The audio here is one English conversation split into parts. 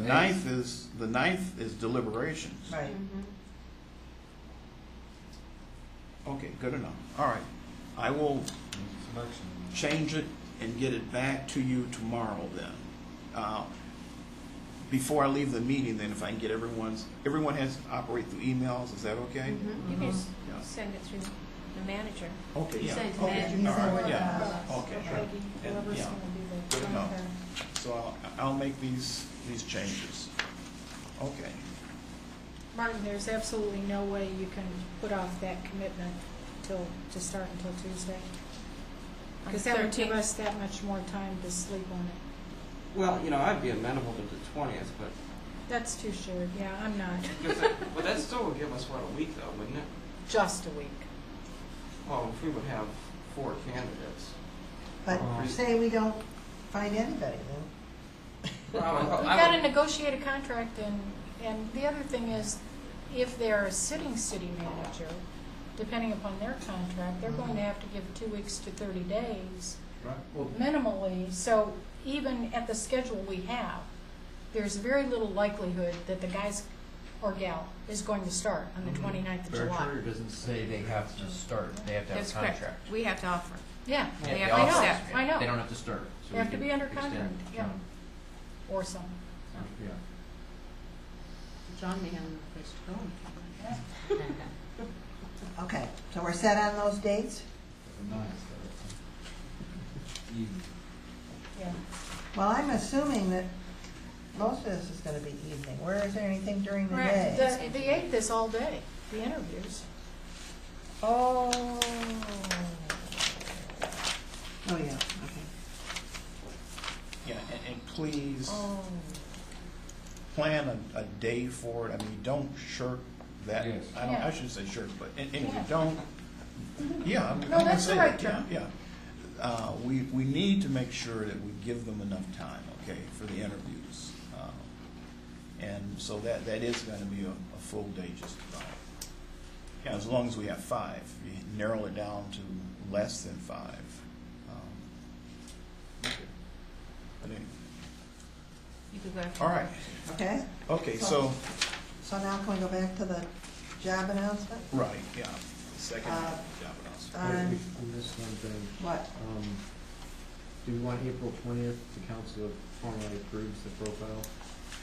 ninth is, the ninth is deliberations. Right. Okay, good enough. All right. I will change it and get it back to you tomorrow then. Uh, Before I leave the meeting then, if I can get everyone's, everyone has to operate through emails, is that okay? Mhm. Mm-hmm. You can s- Yeah. send it through the manager. Okay, You yeah. send it to Okay, management. all right, Forward yeah. to us. Okay, sure. And, Whoever's yeah. gonna do Good the enough. So I'll, I'll make these, these changes. Okay. Martin, there's absolutely no way you can put off that commitment till, to start until Tuesday. On Because the that would give 13th. us that much more time to sleep on it. Well, you know, I'd be amenable to the twentieth, but That's too short, yeah, I'm not. because that, but that still would give us what a week though, wouldn't it? Just a week. Well, if we would have four candidates. But say we don't find anybody, Well, I would- We've I got to would- negotiate a contract and, and the other thing is, if they're a sitting city manager, depending upon their contract, they're going to have to give two weeks to thirty days minimally. So even at the schedule we have, there's very little likelihood that the guys or gal is going to start on Mm-hmm. the 29th of Our July. charter doesn't say they have to start, they have to have That's a correct. contract. We have to offer. Yeah, They They have have to to offer. accept. I know. They don't have to start. so They we have to can be under extend, contract, yeah, or some. Yeah. John may have a place to go. then. Okay, so we're set on those dates? Yeah. Well, I'm assuming that most of this is gonna be evening. Where is there anything during the Correct. day? The, the eighth is all day, the interviews. Oh. Oh, yeah, okay. Yeah, and, and please Oh. plan a, a day for it. I mean, you don't shirk that. Yes. I don't, Yeah. I shouldn't say shirk, but, and, and you Yeah. don't, yeah. I'm- I'm No, gonna that's the say right that, term. Yeah, yeah. Uh, we, we need to make sure that we give them enough time, okay, for the interviews. Um, And so that, that is gonna be a, a full day just about. Yeah, as long as we have five, you narrow it down to less than five. Um, okay. But anyway, You could go after. All right, Okay, okay, so. so now can we go back to the job announcement? Right, yeah, second Uh, job announcement. Wait, Um, we- we missed one thing. What? Um, do we want April twentieth, the council formally approves the profile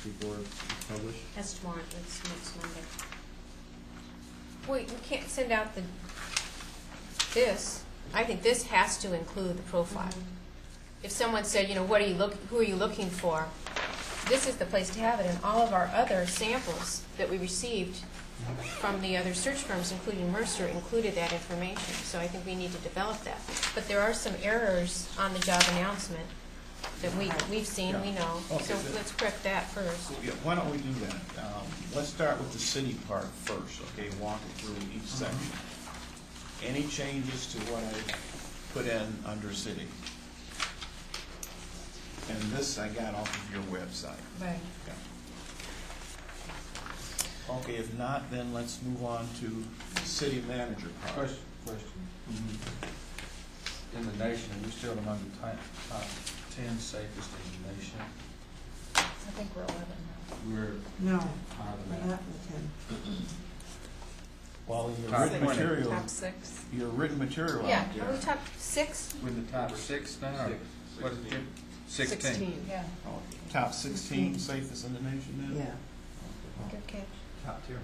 before it's published? That's tomorrow, that's next Monday. Wait, we can't send out the, this, I think this has to include the profile. If someone said, you know, what are you look, who are you looking for? This is the place to have it, and all of our other samples that we received from the other search firms, including Mercer, included that information, so I think we need to develop that. But there are some errors on the job announcement that we, we've seen, we know, Okay, so good. let's correct that first. So, yeah, why don't we do that? Um, let's start with the city part first, okay, walk it through each section. Any changes to what I put in under city? And this I got off of your website. Right. Yeah. Okay, if not, then let's move on to city manager part. Question, question. Mhm. In the nation, are we still among the top, top ten safest in the nation? I think we're eleven now. We're No, higher we're than that. not with him. Well, your Top written twenty. material, six. your written material Yeah, out are there. we top six? We're in the top six now? or What is it? Sixteen. Yeah, Oh, Top sixteen safest in the nation now? Yeah. good catch. Top tier.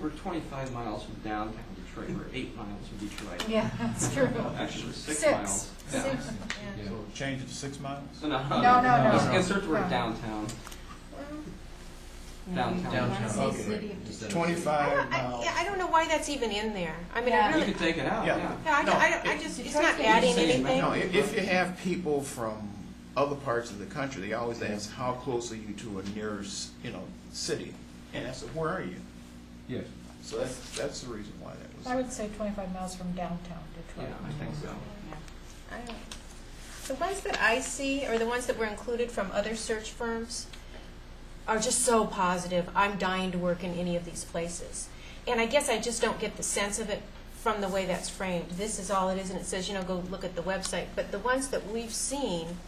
We're twenty-five miles from downtown Detroit, we're eight miles from Detroit. Yeah, that's true. Actually, six Six. miles. down. Six, yeah. So change it to six miles? No, no. No, no, Let's no. insert the word No. downtown. Downtown. Downtown. Okay. Instead of- I Twenty-five don't, I, miles. yeah, I don't know why that's even in there. I mean, Yeah. I You really, could take it out, Yeah. yeah. yeah, I, No, I, I it- just, it's Detroit's not the adding same. anything. No, i- if you have people from other parts of the country, they always ask, how close are you to a nearest, you know, city? And I said, where are you? Yes. So that's, that's the reason why I that was. would say twenty-five miles from downtown Detroit. Yeah, I think so. I don't- The ones that I see, or the ones that were included from other search firms, are just so positive. I'm dying to work in any of these places. And I guess I just don't get the sense of it from the way that's framed. This is all it is, and it says, you know, go look at the website. But the ones that we've seen,